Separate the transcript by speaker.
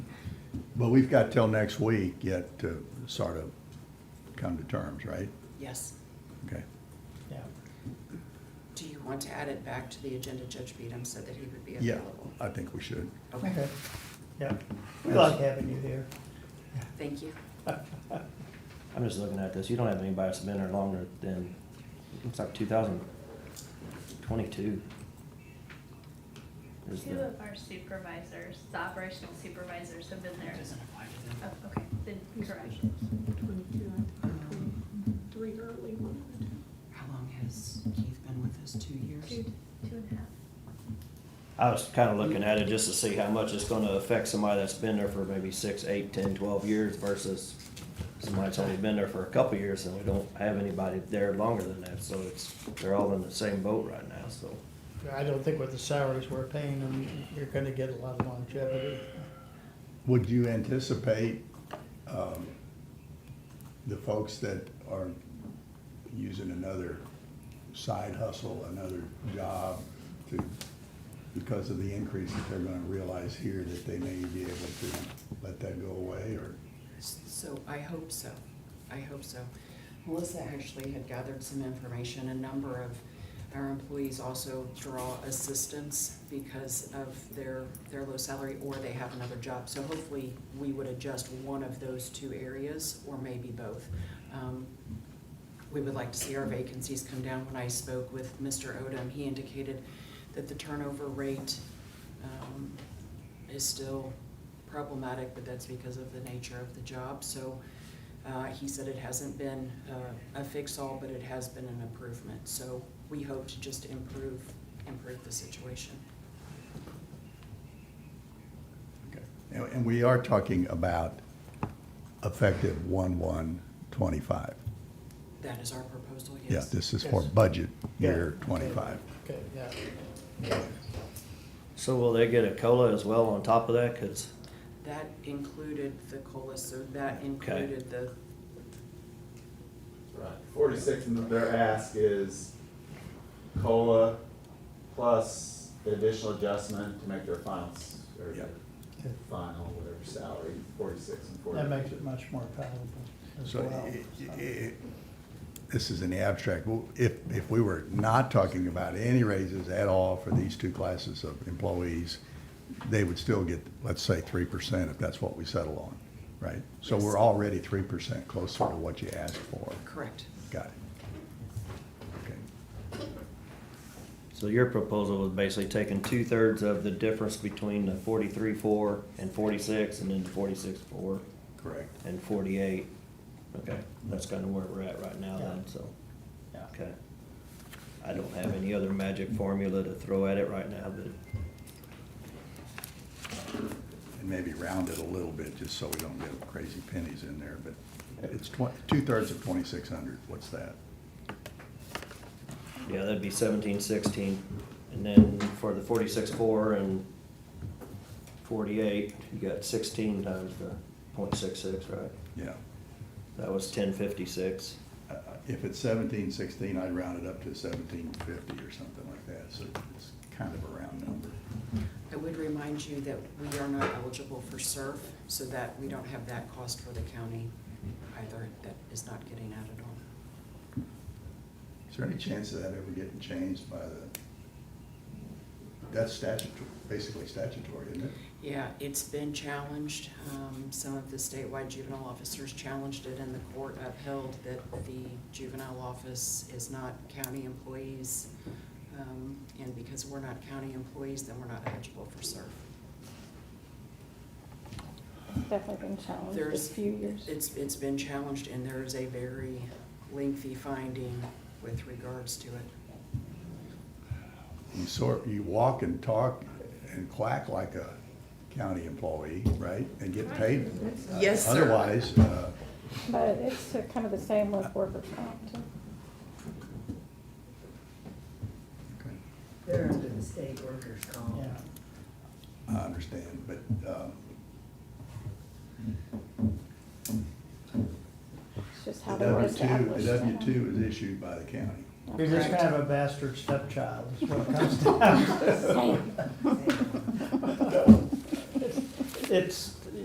Speaker 1: But we've got till next week yet to sort of come to terms, right?
Speaker 2: Yes.
Speaker 1: Okay.
Speaker 3: Yeah.
Speaker 2: Do you want to add it back to the agenda? Judge Beadham said that he would be
Speaker 1: Yeah, Uh,
Speaker 2: available.
Speaker 1: I think we should.
Speaker 2: Okay,
Speaker 3: Yeah, we like having you here.
Speaker 2: thank you.
Speaker 4: I'm just looking at this, you don't have anybody that's been there longer than, looks like two thousand twenty-two. Is
Speaker 5: Two
Speaker 4: the,
Speaker 5: of our supervisors, the operational supervisors have been there. Oh, okay, then correct.
Speaker 6: Twenty-two, I think, twenty-three early, one of the two.
Speaker 2: How long has Keith been with us? Two
Speaker 5: Two,
Speaker 2: years?
Speaker 5: two and a half.
Speaker 4: I was kinda looking at it just to see how much it's gonna affect somebody that's been there for maybe six, eight, ten, twelve years versus somebody that's only been there for a couple years and we don't have anybody there longer than that, so it's, they're all in the same boat right now, so.
Speaker 3: I don't think with the salaries we're paying them, you're gonna get a lot of longevity.
Speaker 1: Would you anticipate um, the folks that are using another side hustle, another job to, because of the increase that they're gonna realize here, that they may be able to let that go away or?
Speaker 2: So I hope so. I hope so. Melissa actually had gathered some information. A number of our employees also draw assistance because of their, their low salary or they have another job. So hopefully we would adjust one of those two areas or maybe both. Um, we would like to see our vacancies come down. When I spoke with Mr. Odom, he indicated that the turnover rate um, is still problematic, but that's because of the nature of the job. So uh, he said it hasn't been uh, a fix-all, but it has been an improvement. So we hope to just improve, improve the situation.
Speaker 1: Okay. And and we are talking about effective one-one twenty-five.
Speaker 2: That is our proposal,
Speaker 1: Yeah,
Speaker 2: yes.
Speaker 1: this is for
Speaker 3: Yes.
Speaker 1: budget year
Speaker 3: Yeah.
Speaker 1: twenty-five.
Speaker 3: Okay, yeah.
Speaker 4: So will they get a COLA as well on top of that, cause
Speaker 2: That included the COLA, so that included the,
Speaker 7: Right. Forty-six, and their ask is COLA plus the additional adjustment to make their finals, or
Speaker 1: Yep.
Speaker 7: their final, whatever salary, forty-six and forty.
Speaker 3: That makes it much more palatable as
Speaker 1: So
Speaker 3: well.
Speaker 1: i- i- i- this is in the abstract. Well, If, if we were not talking about any raises at all for these two classes of employees, they would still get, let's say, three percent if that's what we settle on, right? So
Speaker 2: Yes.
Speaker 1: we're already three percent closer to what you asked for.
Speaker 2: correct.
Speaker 1: Got it. Okay.
Speaker 4: So your proposal was basically taking two-thirds of the difference between the forty-three, four and forty-six, and then forty-six, four
Speaker 1: Correct.
Speaker 4: and forty-eight. Okay, that's kind of where we're at right now then, so,
Speaker 3: Yeah.
Speaker 4: okay. I don't have any other magic formula to throw at it right now, but
Speaker 1: And maybe round it a little bit, just so we don't get crazy pennies in there, but it's twen- two-thirds of twenty-six hundred, what's that?
Speaker 4: yeah, that'd be seventeen, sixteen. And then for the forty-six, four and forty-eight, you got sixteen times the point six-six, right?
Speaker 1: Yeah.
Speaker 4: That was ten fifty-six.
Speaker 1: Uh, If it's seventeen sixteen, I'd round it up to seventeen fifty or something like that, so it's kind of a round number.
Speaker 2: I would remind you that we are not eligible for SURF, so that we don't have that cost for the county either. That is not getting added on.
Speaker 1: Is there any chance of that ever getting changed by the, that's statutory, basically statutory, isn't it?
Speaker 2: Yeah, it's been challenged. Um, Some of the statewide juvenile officers challenged it, and the court upheld that the juvenile office is not county employees. Um, And because we're not county employees, then we're not eligible for SURF.
Speaker 6: Definitely been challenged
Speaker 2: There's-
Speaker 6: this few years.
Speaker 2: It's, it's been challenged, and there is a very lengthy finding with regards to it.
Speaker 1: You sort, you walk and talk and quack like a county employee, right, and get paid.
Speaker 2: Yes, sir.
Speaker 1: Otherwise, uh,
Speaker 6: But it's uh, kind of the same with workers' comp, too.
Speaker 1: okay.
Speaker 8: They're under the state workers' comp.
Speaker 3: Yeah.
Speaker 1: I understand, but, um,
Speaker 6: It's just
Speaker 1: the
Speaker 6: how they're
Speaker 1: W two, the
Speaker 6: established.
Speaker 1: W two is issued by the county.
Speaker 3: You're just
Speaker 2: Correct.
Speaker 3: kind of a bastard stepchild, is what it comes down to.
Speaker 6: Same.
Speaker 3: It's,